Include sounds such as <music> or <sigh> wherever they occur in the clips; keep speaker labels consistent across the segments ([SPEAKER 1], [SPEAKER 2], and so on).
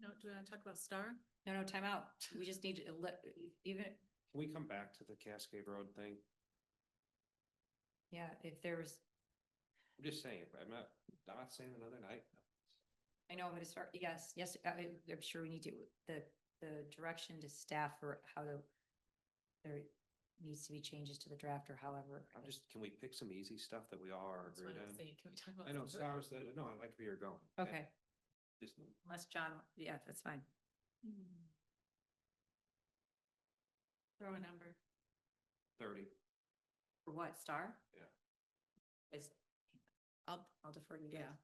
[SPEAKER 1] do we want to talk about Star?
[SPEAKER 2] No, no, time out. We just need to let, even,
[SPEAKER 3] Can we come back to the Cascade Road thing?
[SPEAKER 2] yeah, if there was,
[SPEAKER 3] I'm just saying, I'm not, not saying another night.
[SPEAKER 2] I know, but as far, yes, yes, I, I'm sure we need to, the, the direction to staff or how to. There needs to be changes to the draft or however.
[SPEAKER 3] I'm just, can we pick some easy stuff that we all are
[SPEAKER 1] That's what
[SPEAKER 3] agreed
[SPEAKER 1] I'm
[SPEAKER 3] on?
[SPEAKER 1] saying. Can we talk about?
[SPEAKER 3] I know
[SPEAKER 1] Star?
[SPEAKER 3] stars that, no, I like where you're going.
[SPEAKER 2] Okay,
[SPEAKER 3] Just,
[SPEAKER 2] unless John, yeah, that's fine.
[SPEAKER 1] Hmm. Throw a number.
[SPEAKER 3] thirty,
[SPEAKER 2] For what, Star?
[SPEAKER 3] Yeah.
[SPEAKER 2] Is,
[SPEAKER 1] I'll, I'll defer to you. Yeah.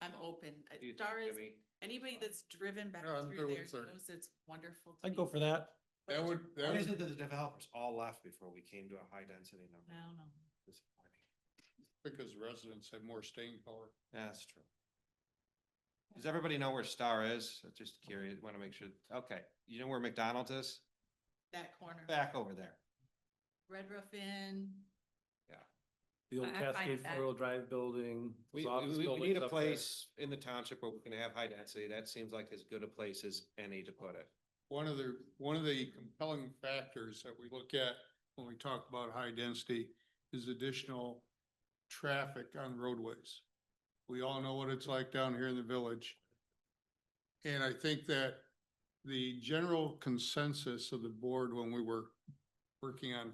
[SPEAKER 1] I'm open. Uh,
[SPEAKER 3] do you think,
[SPEAKER 1] Star is,
[SPEAKER 3] Jimmy?
[SPEAKER 1] anybody that's driven back
[SPEAKER 4] Yeah, I'm
[SPEAKER 1] through
[SPEAKER 4] good with
[SPEAKER 1] there
[SPEAKER 4] thirty.
[SPEAKER 1] knows it's wonderful. to
[SPEAKER 5] I'd go
[SPEAKER 1] be-
[SPEAKER 5] for that.
[SPEAKER 4] That would, that
[SPEAKER 3] Why is
[SPEAKER 4] would,
[SPEAKER 3] it that the developers all left before we came to a high density
[SPEAKER 1] I
[SPEAKER 3] number?
[SPEAKER 1] don't know.
[SPEAKER 3] Disappointing.
[SPEAKER 4] because residents have more staying power.
[SPEAKER 3] That's true. Does everybody know where Star is? I'm Just curious, want to make sure, okay, you know where McDonald's is?
[SPEAKER 1] That corner,
[SPEAKER 3] Back over there.
[SPEAKER 1] Red Roof Inn,
[SPEAKER 5] The
[SPEAKER 2] I-
[SPEAKER 5] old
[SPEAKER 2] I'm fine with
[SPEAKER 5] Cascade
[SPEAKER 2] that.
[SPEAKER 5] four-wheel drive building.
[SPEAKER 3] We,
[SPEAKER 5] those office
[SPEAKER 3] we, we
[SPEAKER 5] buildings
[SPEAKER 3] need a
[SPEAKER 5] up there.
[SPEAKER 3] place in the township where we can have high density. That seems like as good a place as any to put it.
[SPEAKER 4] One of the, one of the compelling factors that we look at when we talk about high density is additional traffic on roadways. We all know what it's like down here in the village. And I think that the general consensus of the board when we were working on
[SPEAKER 1] I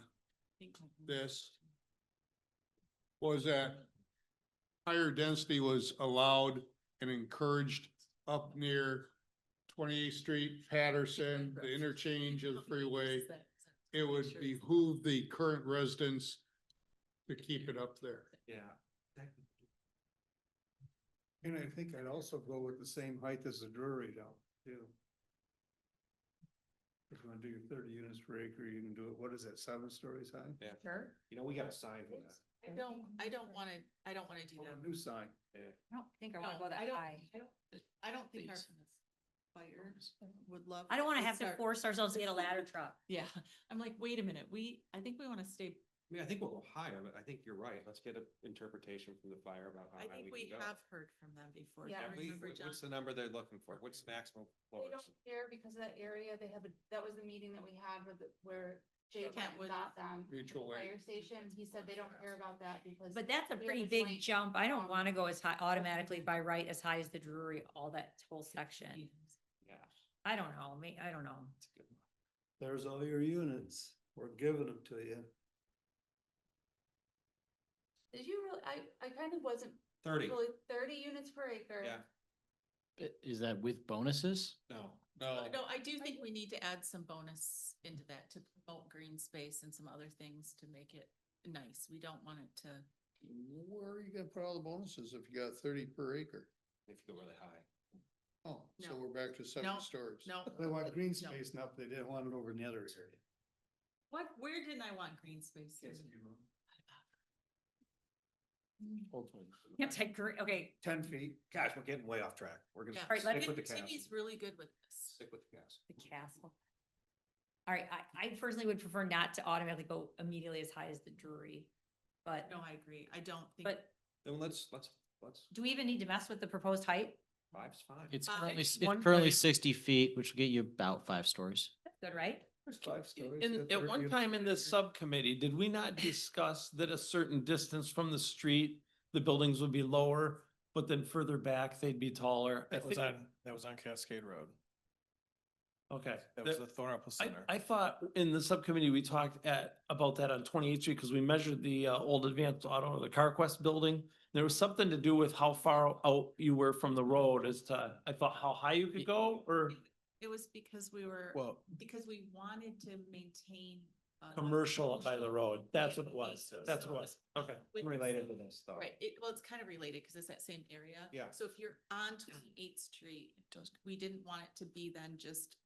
[SPEAKER 1] think.
[SPEAKER 4] this was that higher density was allowed and encouraged up near Twenty-Eighth Street, Patterson, the interchange of the freeway. It would behoove the current residents to keep it up there.
[SPEAKER 3] Yeah.
[SPEAKER 6] And I think I'd also go with the same height as the Drury down, too. If you wanna do your thirty units per acre, you can do it, what is that, seven stories high?
[SPEAKER 2] sure.
[SPEAKER 3] You know, we got a sign for that.
[SPEAKER 1] I don't, I don't want to, I don't want to do
[SPEAKER 6] Oh,
[SPEAKER 1] that.
[SPEAKER 6] a new sign.
[SPEAKER 2] I don't think I want to
[SPEAKER 1] No,
[SPEAKER 2] go that
[SPEAKER 1] I don't-
[SPEAKER 2] high.
[SPEAKER 1] I don't- I don't think our fire would love.
[SPEAKER 2] I don't want to
[SPEAKER 1] to
[SPEAKER 2] have to
[SPEAKER 1] start-
[SPEAKER 2] force ourselves to get a ladder truck.
[SPEAKER 1] Yeah, I'm like, wait a minute, we, I think we want to stay,
[SPEAKER 3] I mean, I think we'll go higher, but I think you're right. Let's get an interpretation from the fire about how
[SPEAKER 1] I
[SPEAKER 3] high
[SPEAKER 1] think
[SPEAKER 3] we
[SPEAKER 1] we
[SPEAKER 3] can go.
[SPEAKER 1] have heard from them before.
[SPEAKER 2] Yeah.
[SPEAKER 1] I
[SPEAKER 3] Have we-
[SPEAKER 1] remember John.
[SPEAKER 3] What's the number they're looking for? What's maximum
[SPEAKER 7] They
[SPEAKER 3] floors?
[SPEAKER 7] don't care because of that area, they have, a that was the meeting that we had with, the- where Jay went
[SPEAKER 1] Kent
[SPEAKER 7] and
[SPEAKER 1] would-
[SPEAKER 7] got them.
[SPEAKER 4] Mutual aid.
[SPEAKER 7] Fire station, he said they don't care about that because.
[SPEAKER 2] But that's a
[SPEAKER 7] we have
[SPEAKER 2] pretty
[SPEAKER 7] this
[SPEAKER 2] big
[SPEAKER 7] link,
[SPEAKER 2] jump. I don't
[SPEAKER 7] um,
[SPEAKER 2] want to go as high automatically by right as high as the Drury, all that whole section.
[SPEAKER 3] Yeah,
[SPEAKER 2] I don't know, me, I don't know. <laughs>
[SPEAKER 3] that's a good one.
[SPEAKER 6] There's all your units, we're giving them to you.
[SPEAKER 7] Did you really, I, I kind of wasn't
[SPEAKER 3] Thirty,
[SPEAKER 7] really, thirty units per acre.
[SPEAKER 3] Yeah.
[SPEAKER 8] Is that with bonuses?
[SPEAKER 3] no.
[SPEAKER 4] No,
[SPEAKER 1] No, I do think we need to add some bonus into that to promote green space and some other things to make it nice. We don't want it to,
[SPEAKER 4] where are you gonna put all the bonuses if you got thirty per acre?
[SPEAKER 3] If you go really high.
[SPEAKER 4] Oh, so
[SPEAKER 1] No.
[SPEAKER 4] we're back to
[SPEAKER 1] No,
[SPEAKER 4] seven stories.
[SPEAKER 1] no.
[SPEAKER 6] They want green
[SPEAKER 1] No.
[SPEAKER 6] space now, but they didn't want it over in the other area.
[SPEAKER 1] What, where didn't I want green space?
[SPEAKER 5] Mm-hmm.
[SPEAKER 2] You have to take gre- okay,
[SPEAKER 6] Ten feet,
[SPEAKER 3] Gosh, we're getting way off track. We're gonna
[SPEAKER 1] Yeah.
[SPEAKER 2] right, let
[SPEAKER 3] stick with the cast.
[SPEAKER 1] Timmy's really good with this.
[SPEAKER 3] Stick with the cast.
[SPEAKER 2] the castle. All right, I, I personally would prefer not to automatically go immediately as high as the Drury. But,
[SPEAKER 1] No, I agree. I don't think.
[SPEAKER 2] but
[SPEAKER 3] Then let's, let's, let's,
[SPEAKER 2] do we even need to mess with the proposed height?
[SPEAKER 3] five's fine.
[SPEAKER 8] It's
[SPEAKER 1] Five.
[SPEAKER 8] currently, s-
[SPEAKER 1] One
[SPEAKER 8] it's currently
[SPEAKER 1] grade.
[SPEAKER 8] sixty feet, which will get you about five stories.
[SPEAKER 2] That's Good, right?
[SPEAKER 6] there's five stories.
[SPEAKER 5] In, at one time in this subcommittee, did we not discuss that a certain distance from the street, the buildings would be lower, but then further back, they'd be taller? I
[SPEAKER 9] That was
[SPEAKER 5] think-
[SPEAKER 9] on, that was on Cascade Road.
[SPEAKER 5] Okay.
[SPEAKER 9] That was
[SPEAKER 5] That-
[SPEAKER 9] the Thornapple
[SPEAKER 5] I,
[SPEAKER 9] Center.
[SPEAKER 5] I thought in the subcommittee, we talked at, about that on twenty-eighth street, because we measured the, uh, old advanced auto, the CarQuest building. There was something to do with how far out you were from the road as to, I thought how high you could go, or
[SPEAKER 1] It was because we were,
[SPEAKER 9] Well,
[SPEAKER 1] because we wanted to maintain. uh,
[SPEAKER 5] commercial by the road. That's what it
[SPEAKER 1] commercial
[SPEAKER 5] was. That's what it was.
[SPEAKER 1] space.
[SPEAKER 5] Okay.
[SPEAKER 1] With-
[SPEAKER 3] Related to this though.
[SPEAKER 1] Right, it, well, it's kind of related because it's that same area.
[SPEAKER 3] Yeah.
[SPEAKER 1] So if you're on Twenty-Eighth Street, we didn't want it to be then just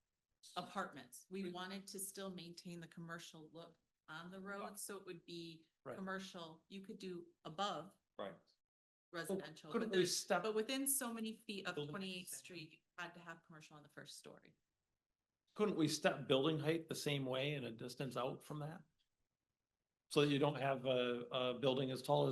[SPEAKER 1] apartments. We wanted to still maintain the commercial look on the road, so it would be
[SPEAKER 5] Right.
[SPEAKER 1] commercial, you could do above
[SPEAKER 3] Right.
[SPEAKER 1] residential.
[SPEAKER 5] Couldn't
[SPEAKER 1] but
[SPEAKER 5] they
[SPEAKER 1] with-
[SPEAKER 5] step?
[SPEAKER 1] But within so many feet of
[SPEAKER 5] Building
[SPEAKER 1] Twenty-Eighth
[SPEAKER 5] height.
[SPEAKER 1] Street, you had to have commercial on the first story.
[SPEAKER 5] Couldn't we step building height the same way and a distance out from that? So that you don't have a, a building as tall as.